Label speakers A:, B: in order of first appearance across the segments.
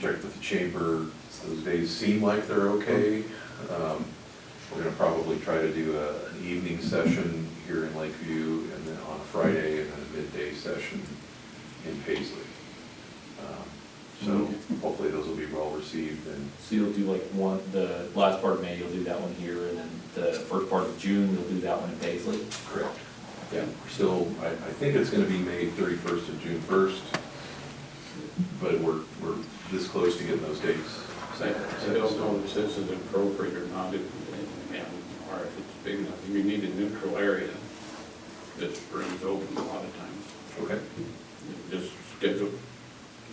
A: checked with the chamber, those days seem like they're okay. Um, We're gonna probably try to do a- an evening session here in Lakeview, and then on a Friday, and then a midday session in Paisley. Um, So hopefully those will be well received, and
B: So you'll do like one, the last part of May, you'll do that one here, and then the first part of June, you'll do that one in Paisley?
A: Correct. Yeah, we're still, I, I think it's gonna be May thirty-first and June first, but we're, we're this close to getting those dates.
C: I I don't know if this is appropriate or not, if, and- or if it's big enough, you need a neutral area that springs open a lot of times,
A: Okay,
C: just schedule.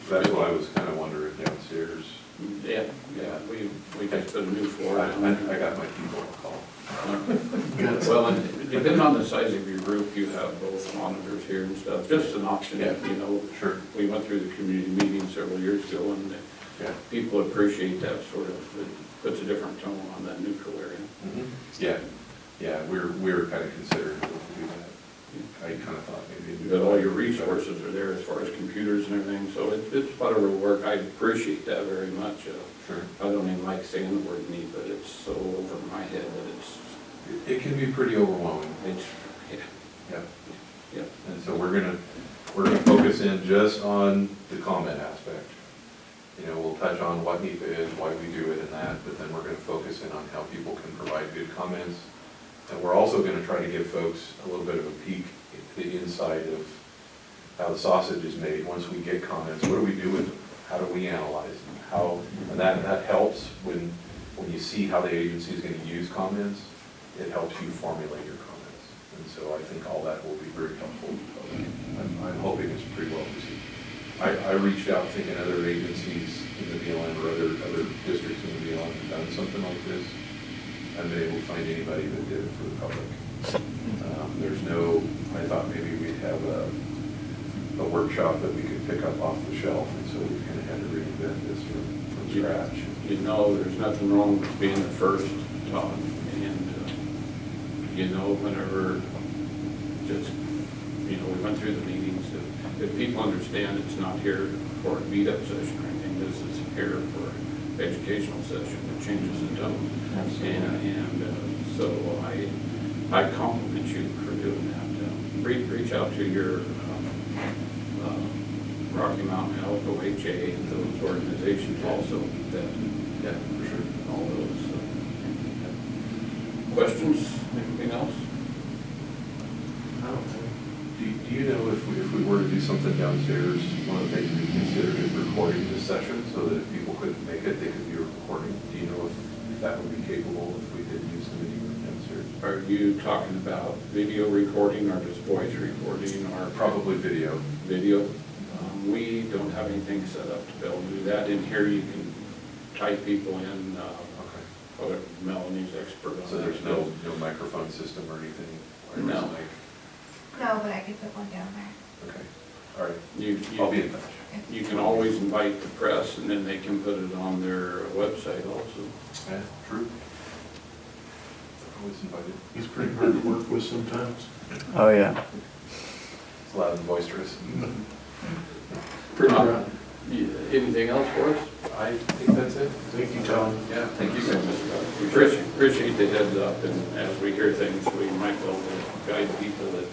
A: that's what I was kinda wondering downstairs.
C: Yeah, yeah, we, we just put a new
A: I,
C: floor down.
A: I I got my people on call.
C: Well, and depending on the size of your group, you have both monitors here and stuff, just an option, you know.
A: Sure,
C: We went through the community meeting several years ago, and the
A: yeah.
C: people appreciate that sort of, it puts a different tone on that neutral area.
A: Yeah, yeah, we're, we're kinda considering what to do that. I kinda thought maybe.
C: You've got all your resources are there as far as computers and everything, so it- it's part of our work. I appreciate that very much. Uh,
A: Sure.
C: I don't even like saying the word need, but it's so over my head that it's,
A: It- It can be pretty overwhelming,
C: it's, yeah,
A: yeah.
C: yeah.
A: And so we're gonna, we're gonna focus in just on the comment aspect. You know, we'll touch on what NEPA is, why we do it and that, but then we're gonna focus in on how people can provide good comments. And we're also gonna try to give folks a little bit of a peek at the inside of how the sausage is made. Once we get comments, what do we do with them? How do we analyze them? How, and that, that helps when, when you see how the agency is gonna use comments, it helps you formulate your comments. And so I think all that will be very helpful. I'm, I'm hoping it's pretty well received. I, I reached out thinking other agencies in the BLM or other, other districts in the BLM have done something like this. I haven't been able to find anybody that did it for the public. Um, There's no, I thought maybe we'd have a, a workshop that we could pick up off the shelf, and so we kind of had to reinvent this from, from scratch.
C: You know, there's nothing wrong with being the first, Todd, and, uh, you know, whenever, just, you know, we went through the meetings, if- if people understand it's not here for a meetup session or anything, this is here for educational session, it changes the tone.
B: Absolutely.
C: And, and, uh, so I, I compliment you for doing that. Um, Reach, reach out to your, um, um, Rocky Mountain Health, OHA, and those organizations also that
A: Yeah, for sure.
C: all those. uh, Questions, anything else?
A: Do, do you know if we, if we were to do something downstairs, one of the things we considered is recording this session, so that if people couldn't make it, they could be recording? Do you know if that would be capable if we did use the meeting room downstairs?
C: Are you talking about video recording or just voice recording or
A: Or probably video?
C: video? Um, We don't have anything set up to be able to do that. In here, you can type people in, uh,
A: Okay.
C: oh, Melanie's expert on that.
A: So there's no, no microphone system or anything? wireless
C: No.
A: mic?
D: No, but I could put one down there.
A: Okay, all right,
C: You,
A: I'll be in
C: you,
A: touch.
C: you can always invite the press and then they can put it on their website also.
A: Yeah, true. Always invited.
E: He's pretty hard to work with sometimes.
F: Oh, yeah.
A: It's loud and boisterous.
E: Pretty rough.
C: Uh, Yeah, Anything else for us?
A: I think that's it.
E: Thank you, Tom.
C: Yeah, thank you. We appreciate, appreciate the heads up, and as we hear things, we might be able to guide people that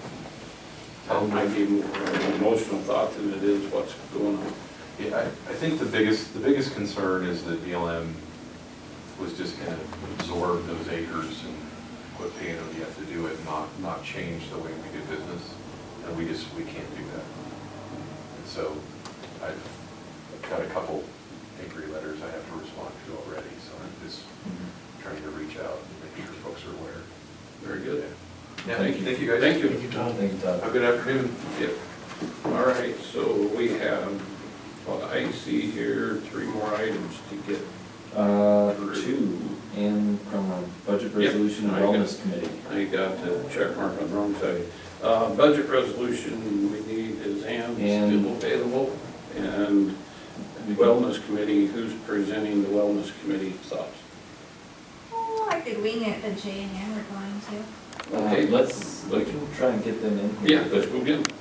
A: Um,
C: that might be more of an emotional thought than it is what's going on.
A: Yeah, I, I think the biggest, the biggest concern is that BLM was just gonna absorb those acres and quit paying them, you have to do it, not, not change the way we do business, and we just, we can't do that. And so I've got a couple angry letters I have to respond to already, so I'm just trying to reach out and make sure folks are aware.
C: Very good.
A: Yeah,
C: Thank you.
A: thank you guys.
C: Thank
E: Thank
C: you.
E: you, Tom.
B: Thank you, Todd.
A: Have a good afternoon.
C: Yep. All right, so we have, what I see here, three more items to get.
B: Uh, two, and from our Budget
C: Yep,
B: Resolution and
C: I got-
B: Wellness Committee.
C: I got the check mark on the wrong side. Uh, budget resolution we need is Ann
B: And-
C: still available, and Wellness Committee, who's presenting the Wellness Committee thoughts?
D: Oh, I could wing it, but Jay and Ann were going to.
B: Uh,
C: Okay.
B: Let's, we can try and get them in here.
C: Yeah, let's go get 'em.